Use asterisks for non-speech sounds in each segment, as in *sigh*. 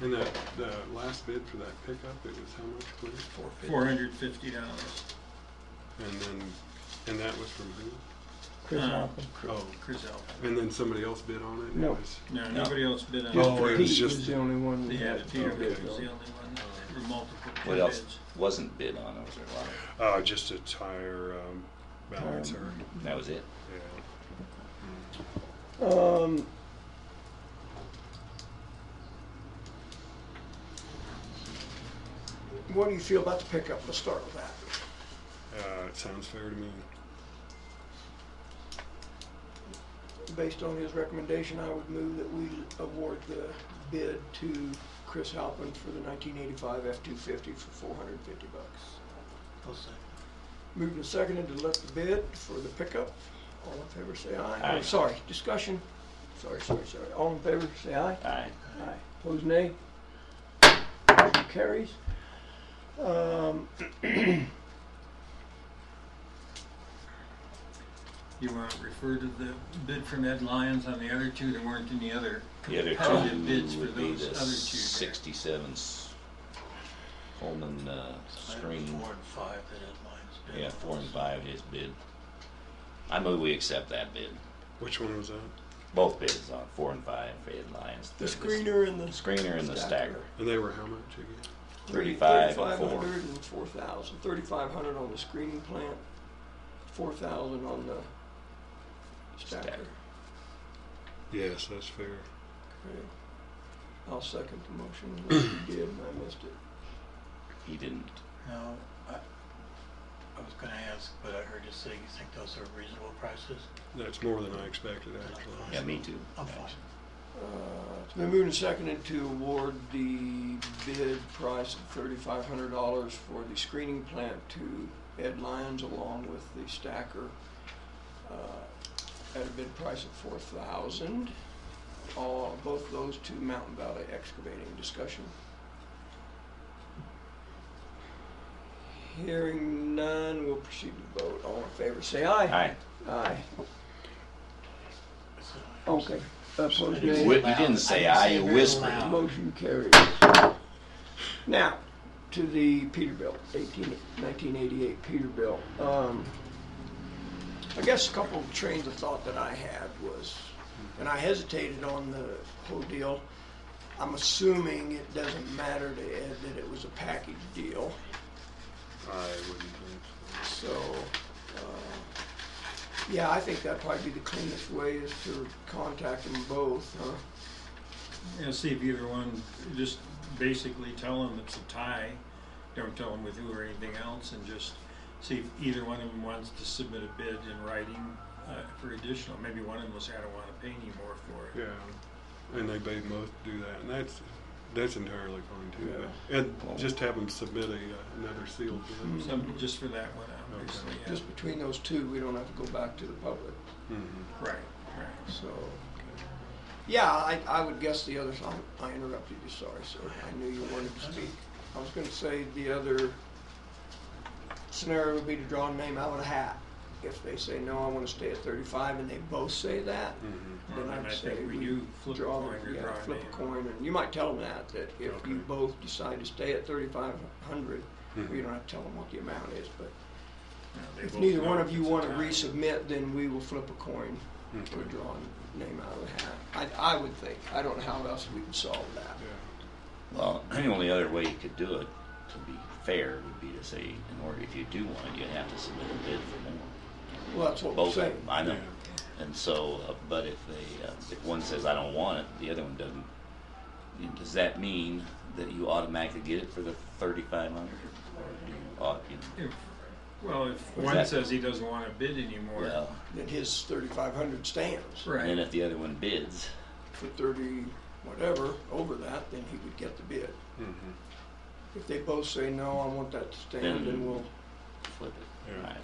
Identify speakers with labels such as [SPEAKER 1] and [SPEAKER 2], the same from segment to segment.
[SPEAKER 1] And the, the last bid for that pickup, it was how much, please?
[SPEAKER 2] Four fifty.
[SPEAKER 3] four hundred fifty dollars.
[SPEAKER 1] And then, and that was from who?
[SPEAKER 4] Chris
[SPEAKER 3] Uh,
[SPEAKER 4] Hoffman.
[SPEAKER 1] Oh,
[SPEAKER 3] Chris Alpert.
[SPEAKER 1] and then somebody else bid on it? and it
[SPEAKER 4] No.
[SPEAKER 1] was-
[SPEAKER 3] No, nobody else bid on
[SPEAKER 4] Just
[SPEAKER 2] Oh,
[SPEAKER 3] it.
[SPEAKER 2] it
[SPEAKER 4] Pete
[SPEAKER 2] was
[SPEAKER 1] just-
[SPEAKER 4] was the only one. we
[SPEAKER 3] Yeah,
[SPEAKER 4] had.
[SPEAKER 3] Peterbilt
[SPEAKER 1] Okay.
[SPEAKER 3] was the only one, that- there were multiple
[SPEAKER 2] What else
[SPEAKER 3] bids.
[SPEAKER 2] wasn't bid on, was there a lot?
[SPEAKER 1] Uh, just a tire, um, balancer,
[SPEAKER 2] That was it.
[SPEAKER 1] yeah.
[SPEAKER 4] Um, what do you feel about the pickup? Let's start with that.
[SPEAKER 1] Uh, it sounds fair to me.
[SPEAKER 4] Based on his recommendation, I would move that we award the bid to Chris Halpin for the nineteen eighty-five F-250 for four hundred and fifty bucks.
[SPEAKER 3] I'll second.
[SPEAKER 4] Moved and seconded to let the bid for the pickup. All in favor, say aye.
[SPEAKER 2] Aye.
[SPEAKER 4] Oh, Sorry, discussion. Sorry, sorry, sorry. All in favor, say aye.
[SPEAKER 2] Aye.
[SPEAKER 4] Aye. Opposed, nay? Motion carries. Um, *clears throat*
[SPEAKER 3] You want to refer to the bid from Ed Lyons on the other two, there weren't any other
[SPEAKER 2] The other
[SPEAKER 3] competitive bids
[SPEAKER 2] two
[SPEAKER 3] for
[SPEAKER 2] would be
[SPEAKER 3] those
[SPEAKER 2] the
[SPEAKER 3] other two. there.
[SPEAKER 2] sixty-seven Coleman, uh, screen.
[SPEAKER 5] Four and five that Ed Lyons did.
[SPEAKER 2] Yeah, four and five, his bid. I move we accept that bid.
[SPEAKER 1] Which one was that?
[SPEAKER 2] Both bids on four and five, Fayette Lions.
[SPEAKER 4] The screener and
[SPEAKER 2] The
[SPEAKER 4] the
[SPEAKER 2] screener and the
[SPEAKER 4] Stacker.
[SPEAKER 2] stacker.
[SPEAKER 1] And they were how much again?
[SPEAKER 2] 35 and
[SPEAKER 4] 3,500
[SPEAKER 2] four.
[SPEAKER 4] and 4,000. 3,500 on the screening plant, 4,000 on the stacker.
[SPEAKER 2] Stacker.
[SPEAKER 1] Yes, that's fair.
[SPEAKER 4] Okay. I'll second the motion unless you did and I missed it.
[SPEAKER 2] He didn't.
[SPEAKER 5] No, I, I was gonna ask, but I heard you say you think those are reasonable prices?
[SPEAKER 1] That's more than I expected,
[SPEAKER 2] Yeah,
[SPEAKER 1] actually.
[SPEAKER 2] me too.
[SPEAKER 5] I'm fine.
[SPEAKER 4] Uh, It's been moved and seconded to award the bid price of thirty-five hundred dollars for the screening plant to Ed Lyons along with the stacker uh, at a bid price of four thousand. All, both those to Mountain Valley Excavating. Discussion? Hearing none, we'll proceed to vote. All in favor, say aye.
[SPEAKER 2] Aye.
[SPEAKER 4] Aye.
[SPEAKER 5] So-
[SPEAKER 4] Okay. Opposed,
[SPEAKER 2] You
[SPEAKER 4] nay?
[SPEAKER 2] wi- you didn't say aye, you whispered.
[SPEAKER 4] Motion carries. Now, to the Peterbilt, 18 1988 Peterbilt. Um, I guess a couple of trains of thought that I had was, and I hesitated on the whole deal. I'm assuming it doesn't matter to Ed that it was a package deal,
[SPEAKER 1] I wouldn't think so.
[SPEAKER 4] so, uh, yeah, I think that'd probably be the cleanest way is to contact them both, huh?
[SPEAKER 3] And see if either one, just basically tell them it's a tie, don't tell them with who or anything else, and just see if either one of them wants to submit a bid in writing uh, for additional, maybe one of them will say, I don't wanna pay anymore for it.
[SPEAKER 1] Yeah, and they made most do that, and that's, that's entirely fine too.
[SPEAKER 4] Yeah.
[SPEAKER 1] but- And just have them submit a, uh, another sealed bid.
[SPEAKER 2] Mm-hmm.
[SPEAKER 3] Some, just for that one, obviously, yeah.
[SPEAKER 4] Just between those two, we don't have to go back to the public,
[SPEAKER 1] Mhm.
[SPEAKER 3] Right, right.
[SPEAKER 4] so. Yeah, I, I would guess the other, I- I interrupted you, sorry, sir. I knew you wanted to speak. I was gonna say the other scenario would be to draw a name out of a hat. If they say, no, I wanna stay at thirty-five, and they both say that,
[SPEAKER 1] Mhm.
[SPEAKER 4] then
[SPEAKER 3] Well, then
[SPEAKER 4] I'd
[SPEAKER 3] I
[SPEAKER 4] say
[SPEAKER 3] think we
[SPEAKER 4] we
[SPEAKER 3] do flip a
[SPEAKER 4] draw,
[SPEAKER 3] coin or
[SPEAKER 4] yeah,
[SPEAKER 3] draw a
[SPEAKER 4] flip a
[SPEAKER 3] name.
[SPEAKER 4] coin, and you might tell them that, that if
[SPEAKER 1] Okay.
[SPEAKER 4] you both decide to stay at thirty-five hundred,
[SPEAKER 1] Mhm.
[SPEAKER 4] you don't have to tell them what the amount is, but
[SPEAKER 3] No, Hmm. they
[SPEAKER 4] If
[SPEAKER 3] both
[SPEAKER 4] neither
[SPEAKER 3] know
[SPEAKER 4] one of you
[SPEAKER 3] it's a
[SPEAKER 4] want to
[SPEAKER 3] tie.
[SPEAKER 4] resubmit, then we will flip a coin or
[SPEAKER 1] Okay.
[SPEAKER 4] draw a name out of the hat. I, I would think. I don't know how else we can solve that.
[SPEAKER 1] Yeah.
[SPEAKER 2] Well, the only other way you could do it, to be fair, would be to say, in order, if you do want it, you have to submit a bid for more.
[SPEAKER 4] Well, that's what we're
[SPEAKER 2] Both, of
[SPEAKER 4] saying.
[SPEAKER 2] them, I know.
[SPEAKER 1] Yeah.
[SPEAKER 2] And so, uh, but if they, uh, if one says, I don't want it, the other one doesn't, you- does that mean that you automatically get it for the thirty-five hundred? Or do you, au- you,
[SPEAKER 3] If- Well, if
[SPEAKER 2] Was
[SPEAKER 3] one
[SPEAKER 2] that-
[SPEAKER 3] says he doesn't want a bid anymore.
[SPEAKER 2] well,
[SPEAKER 4] That his thirty-five hundred stands
[SPEAKER 2] and then
[SPEAKER 3] Right,
[SPEAKER 2] if the other one bids,
[SPEAKER 4] for thirty whatever over that, then he would get the bid.
[SPEAKER 1] Mhm.
[SPEAKER 4] If they both say, no, I want that to stand, then
[SPEAKER 2] Then-
[SPEAKER 4] we'll,
[SPEAKER 2] flip it.
[SPEAKER 1] Yeah.
[SPEAKER 2] All right.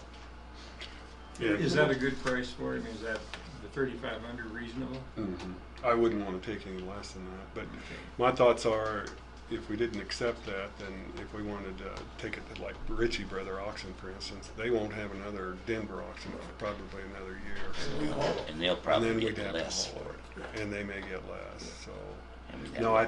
[SPEAKER 3] is that
[SPEAKER 1] Yeah.
[SPEAKER 3] a good price for him, is that the thirty-five hundred reasonable?
[SPEAKER 1] Mhm. I wouldn't want to take any less than that, but
[SPEAKER 3] Okay.
[SPEAKER 1] My thoughts are, if we didn't accept that, then if we wanted to take it to like Ritchie Brother Auction, for instance, they won't have another Denver auction for probably another year.
[SPEAKER 4] we haul it.
[SPEAKER 2] And they'll
[SPEAKER 1] And
[SPEAKER 2] probably
[SPEAKER 1] then we'd
[SPEAKER 2] get
[SPEAKER 1] have to
[SPEAKER 2] less
[SPEAKER 1] haul
[SPEAKER 2] for it.
[SPEAKER 1] it, and they may get less, so.
[SPEAKER 2] And we'd have
[SPEAKER 1] No,
[SPEAKER 2] to-
[SPEAKER 1] I